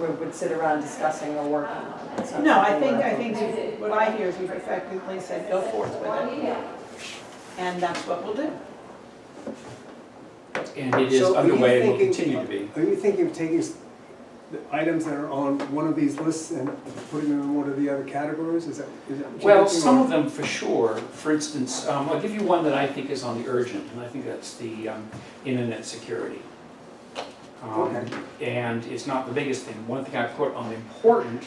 we would sit around discussing or working on. It's not No, I something think, we're- I think we've- what I hear is we've effectively said, go forth with it. And that's what we'll do. And it is So are you underway and will thinking- continue to be. Are you thinking of taking s- the items that are on one of these lists and putting them in one of the other categories? Is that, is that? what you're Well, thinking, some or- of them for sure. For instance, um, I'll give you one that I think is on the urgent, and I think that's the um, internet security. Um, And it's not the biggest thing. One thing I put on important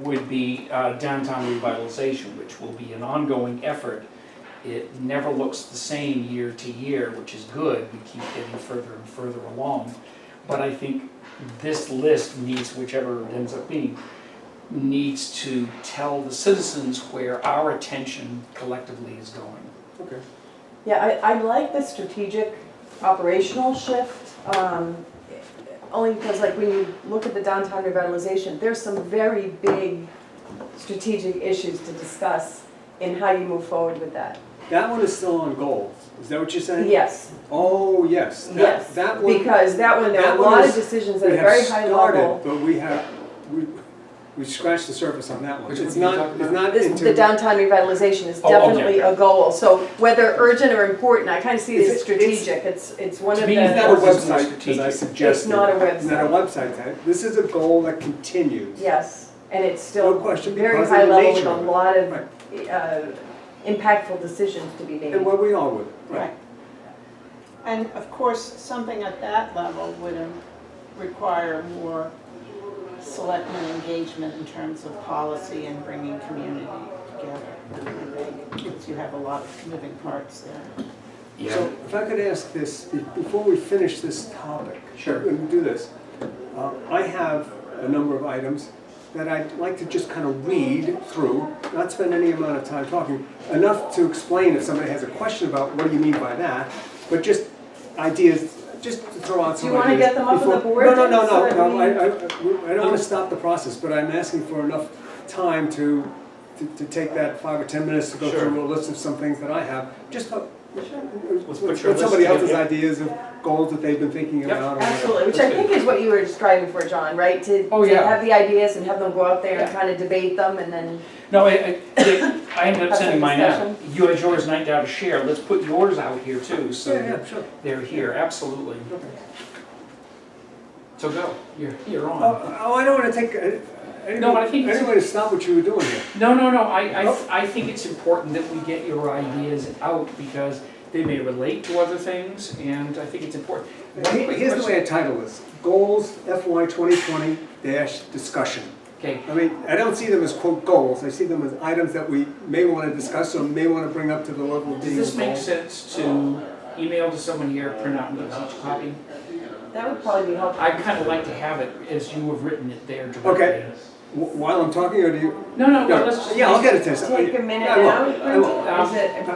would be uh, downtown revitalization, which will be an ongoing effort. It never looks the same year to year, which is good. We keep getting further and further along. But I think this list needs, whichever it ends up being, needs to tell the citizens where our attention collectively is going. Okay. Yeah, I, I like the strategic operational shift, um, only because like when you look at the downtown revitalization, there's some very big strategic issues to discuss in how you move forward with that. That one is still on goals. Is that what you're saying? Yes, Oh, yes. That- yes, That one. because that one, there are that a one lot of is- decisions at a We have very high started, level. but we have, we, we scratched the surface on that one. Which one It's are you not, talking it's about? not This, into. the downtown revitalization is Oh, okay, definitely okay. a goal, so whether urgent or important, I kind of see it It's- as it's- strategic, it's, it's one To of me, the. It's not a That was more website, as I strategic. suggested. It's not a website. Not a website type. This is a goal that continues. Yes, and it's No still question, very because high of the level with nature a of it. lot of Right. uh, impactful decisions to be made. And where we are with it. Right. And of course, something at that level would um, require more selectmen engagement in terms of policy and bringing community together. I think, Because you have a lot of moving parts there. So if I could ask this, be- before we finish this topic. Sure. Let me do this. Uh, I have a number of items that I'd like to just kind of read through, not spend any amount of time talking, enough to explain if somebody has a question about what do you mean by that, but just ideas, just to throw out Do some ideas. you wanna get them up on the before- board No, no, so no, that no, no, we- I, I, I don't wanna stop the process, but I'm asking for enough time to, to, to take that five or 10 minutes to go Sure. through a list of some things that I have, just to Let's with put your with somebody list else's together. ideas of goals that they've been thinking Yep. about. or whatever. Absolutely, which I think is what you were striving for, John, right? To Oh, to yeah. have the ideas and have them go out there and Yeah. kind of debate them and then, No, I, I, I ended Have up sending some mine out. discussion. You had yours and I down to share. Let's put yours out here too, so Yeah, yeah, that sure. they're here, absolutely. Okay. So go, you're, you're on. Oh, oh, I don't want to take, uh, I didn't No, I want think it's- to stop what you were doing here. No, no, no, I, Oh. I, I think it's important that we get your ideas out because they may relate to other things and I think it's important. One Here- quick Here's the question. way I title this, Goals FY 2020 dash discussion. Okay, I mean, I don't see them as quote goals, I see them as items that we may want to discuss or may want to bring up to the level of does being. this make involved. sense to email to someone here, print out and get each copy? that would probably be helpful. I'd kind of like to have it as you have written it there directly. Okay. Wh- While I'm talking, or do you? No, no, No, well, let's just. Yeah, I'll get it to you. Take a minute I will, now, I will.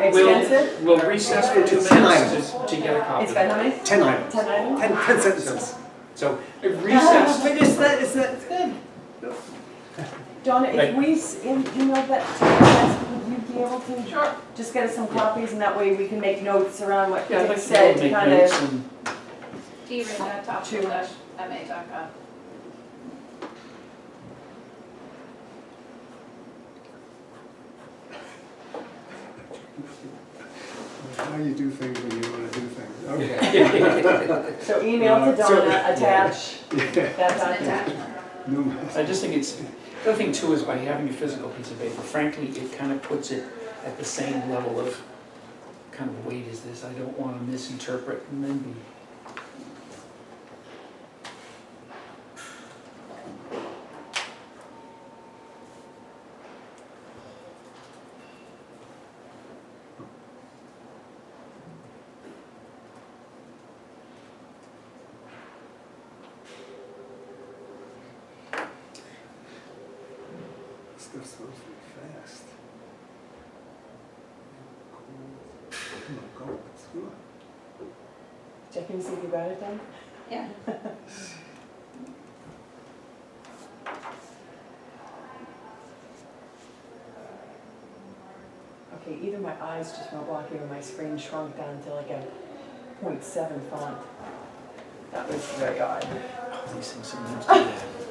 is We'll- it extensive? We'll we'll recess for two It's ten minutes to, to get a copy. It's got how many? Ten items, Ten items? ten, ten sentences. So if Ah, recessed, But it's not, it's not, Donna, if Right. we s- em- email that to you, Jess, would you be able to? Just get us some copies and that way we can make notes around what yeah, I'd Dick like to be able said to to make kind of. notes and, How you do things when you want to do things. Okay. So email to Uh, so- Donna, attach, Yeah. that document. No, I just think it's, the other thing too is by having a physical piece of paper, frankly, it kind of puts it at the same level of kind of weight as this. I don't want to misinterpret and then be. stuff's supposed to be fast. Come on, go, let's do it. Checking to see if you got it done? Yeah. Okay, either my eyes just weren't blocking or my screen shrunk down to like a .7 font. That was very odd. These things sometimes do that.